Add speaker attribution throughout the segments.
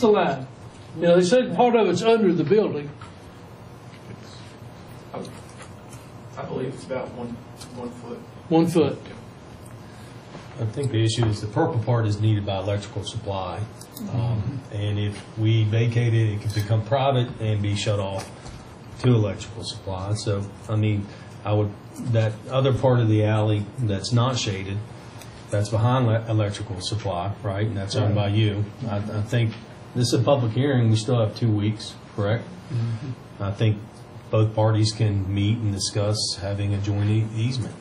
Speaker 1: the line? You know, they said part of it's under the building.
Speaker 2: I believe it's about one, one foot.
Speaker 1: One foot.
Speaker 3: I think the issue is the purple part is needed by electrical supply. Um, And if we vacate it, it can become private and be shut off to electrical supply. So, I mean, I would, that other part of the alley that's not shaded, that's behind le- electrical supply, right? And that's owned by you. I, I think, this is a public hearing, we still have two weeks, correct? I think both parties can meet and discuss having a joint e- easement,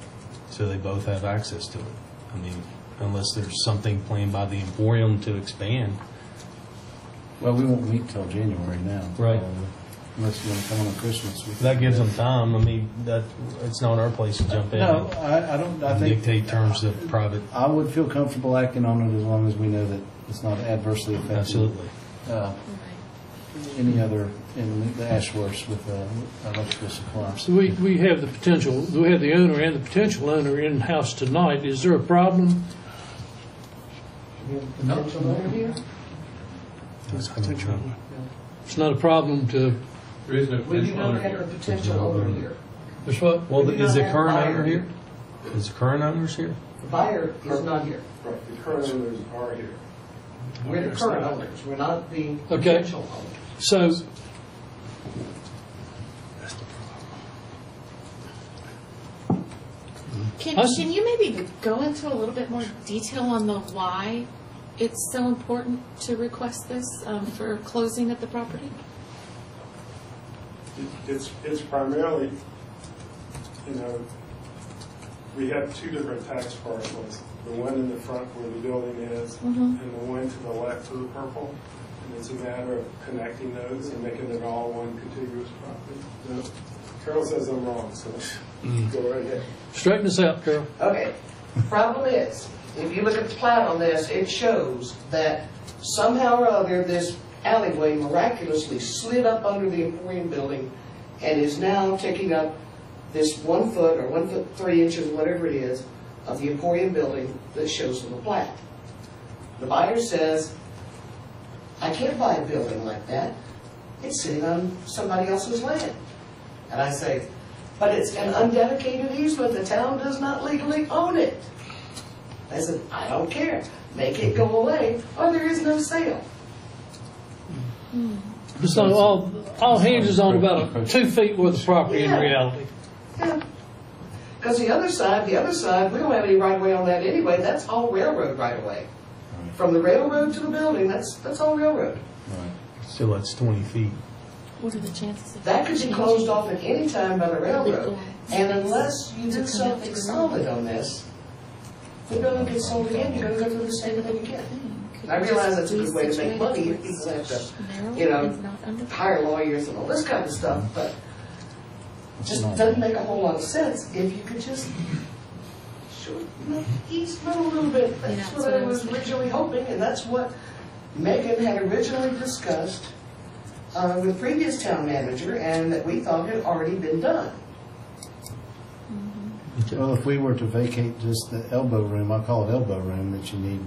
Speaker 3: so they both have access to it. I mean, unless there's something planned by the Emporium to expand.
Speaker 4: Well, we won't meet till January now.
Speaker 3: Right.
Speaker 4: Unless you want to come on Christmas. we-
Speaker 3: That gives them time, I mean, that, it's not our place to jump in
Speaker 4: No,
Speaker 3: and
Speaker 4: I, I don't, I think,
Speaker 3: dictate terms of private,
Speaker 4: I would feel comfortable acting on it as long as we know that it's not adversely affecting.
Speaker 3: absolutely.
Speaker 4: uh, Any other, in the Ashworths with uh, electrical supply.
Speaker 1: So we, we have the potential, we have the owner and the potential owner in-house tonight. Is there a problem? It's not a problem to,
Speaker 2: There is no
Speaker 5: We do
Speaker 2: potential
Speaker 5: not
Speaker 2: owner
Speaker 5: have a
Speaker 2: here.
Speaker 5: potential owner here.
Speaker 1: there's what?
Speaker 3: Well,
Speaker 5: We do
Speaker 3: is
Speaker 5: not
Speaker 3: the
Speaker 5: have
Speaker 3: current
Speaker 5: buyer.
Speaker 3: owner here? Is the current owners here?
Speaker 5: The buyer is not here.
Speaker 2: Right, the current owners are here.
Speaker 5: We're the current owners, we're not the potential owners.
Speaker 1: So.
Speaker 6: Can,
Speaker 1: Us-
Speaker 6: can you maybe go into a little bit more detail on the why it's so important to request this um, for closing of the property?
Speaker 7: It's, it's primarily, you know, we have two different tax parcels. The one in the front where the building is, and the one to the left of the purple. And it's a matter of connecting those and making it all one contiguous property. No, Carol says I'm wrong, so go right ahead.
Speaker 1: Straighten this out, Carol.
Speaker 5: Okay, problem is, if you look at the plat on this, it shows that somehow or other, this alleyway miraculously slid up under the Emporium building and is now taking up this one foot or one foot three inches, whatever it is, of the Emporium building that shows on the plat. The buyer says, I can't buy a building like that. It's sitting on somebody else's land. And I say, but it's an undedicated easement, the town does not legally own it. I said, I don't care, make it go away, or there is no sale.
Speaker 1: It's not all, all hinges on about two feet worth of property in
Speaker 5: Yeah.
Speaker 1: reality.
Speaker 5: Because the other side, the other side, we don't have any right of way on that anyway, that's all railroad right of way. From the railroad to the building, that's, that's all railroad.
Speaker 3: So that's 20 feet.
Speaker 6: What are the chances of
Speaker 5: That could be closed off at any time by the railroad. And unless you
Speaker 6: To
Speaker 5: do
Speaker 6: connect
Speaker 5: something
Speaker 6: the
Speaker 5: solid on this, the building gets sold again, you're gonna go through the same thing again.
Speaker 6: Could
Speaker 5: I realize that's a
Speaker 6: be
Speaker 5: good way to make
Speaker 6: situated
Speaker 5: money, if
Speaker 6: towards
Speaker 5: people have to
Speaker 6: Maryland
Speaker 5: you know,
Speaker 6: and not under-
Speaker 5: hire lawyers and all this kind of stuff, but just doesn't make a whole lot of sense if you could just shorten the easement a little bit.
Speaker 6: Yeah,
Speaker 5: That's
Speaker 6: that's
Speaker 5: what
Speaker 6: what
Speaker 5: I
Speaker 6: I was
Speaker 5: was
Speaker 6: thinking.
Speaker 5: originally hoping, and that's what Megan had originally discussed uh, with previous town manager, and that we thought had already been done.
Speaker 4: Well, if we were to vacate just the elbow room, I call it elbow room, that you need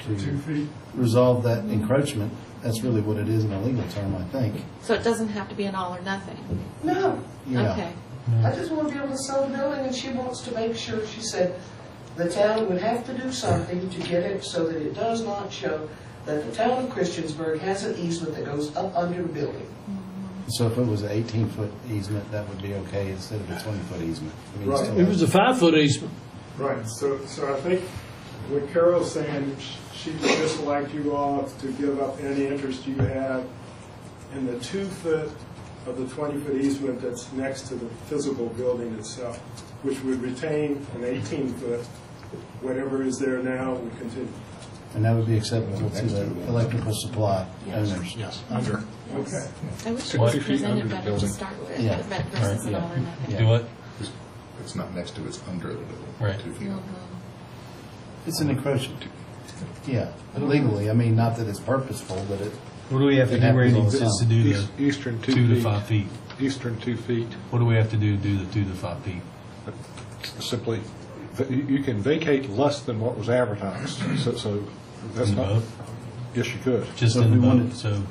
Speaker 2: Two
Speaker 4: to
Speaker 2: feet.
Speaker 4: resolve that encroachment, that's really what it is in a legal term, I think.
Speaker 6: So it doesn't have to be an all or nothing?
Speaker 5: No,
Speaker 4: Yeah.
Speaker 6: Okay.
Speaker 5: I just want to be able to sell the building, and she wants to make sure, she said, the town would have to do something to get it so that it does not show that the town of Christiansburg has an easement that goes up under the building.
Speaker 4: So if it was an 18-foot easement, that would be okay instead of a 20-foot easement? I mean, it's
Speaker 7: Right.
Speaker 4: still-
Speaker 1: It was a five-foot easement.
Speaker 7: Right, so, so I think what Carol's saying, sh- she would just like you all to give up any interest you have in the two foot of the twenty foot easement that's next to the physical building itself, which would retain an eighteen foot, whatever is there now would continue.
Speaker 4: And that would be acceptable to the electrical supply owners?
Speaker 8: Yes, under.
Speaker 7: Okay.
Speaker 6: I wish it
Speaker 8: Well,
Speaker 6: was
Speaker 8: two feet under
Speaker 6: presented
Speaker 8: the
Speaker 6: better to
Speaker 8: building.
Speaker 6: start with,
Speaker 4: Yeah.
Speaker 6: but versus an
Speaker 4: Right,
Speaker 6: all or nothing.
Speaker 4: Do
Speaker 3: what?
Speaker 8: It's not next to, it's under the building.
Speaker 3: Right.
Speaker 8: Two feet.
Speaker 6: Mhm.
Speaker 4: It's an encroachment. Yeah, legally, I mean, not that it's purposeful, but it,
Speaker 3: What do we have to
Speaker 4: It
Speaker 3: do,
Speaker 4: happens
Speaker 3: Randy,
Speaker 4: all the
Speaker 3: just to
Speaker 4: time.
Speaker 3: do
Speaker 8: East-
Speaker 3: the
Speaker 8: Eastern two
Speaker 3: two to
Speaker 8: feet.
Speaker 3: five feet?
Speaker 8: Eastern two feet.
Speaker 3: What do we have to do to do the two to five feet?
Speaker 8: Simply, v- you you can vacate less than what was advertised, so, so that's not,
Speaker 3: Both?
Speaker 9: Yes, you could.
Speaker 3: just
Speaker 8: So if
Speaker 3: in the
Speaker 8: we wanted-
Speaker 3: boat, so.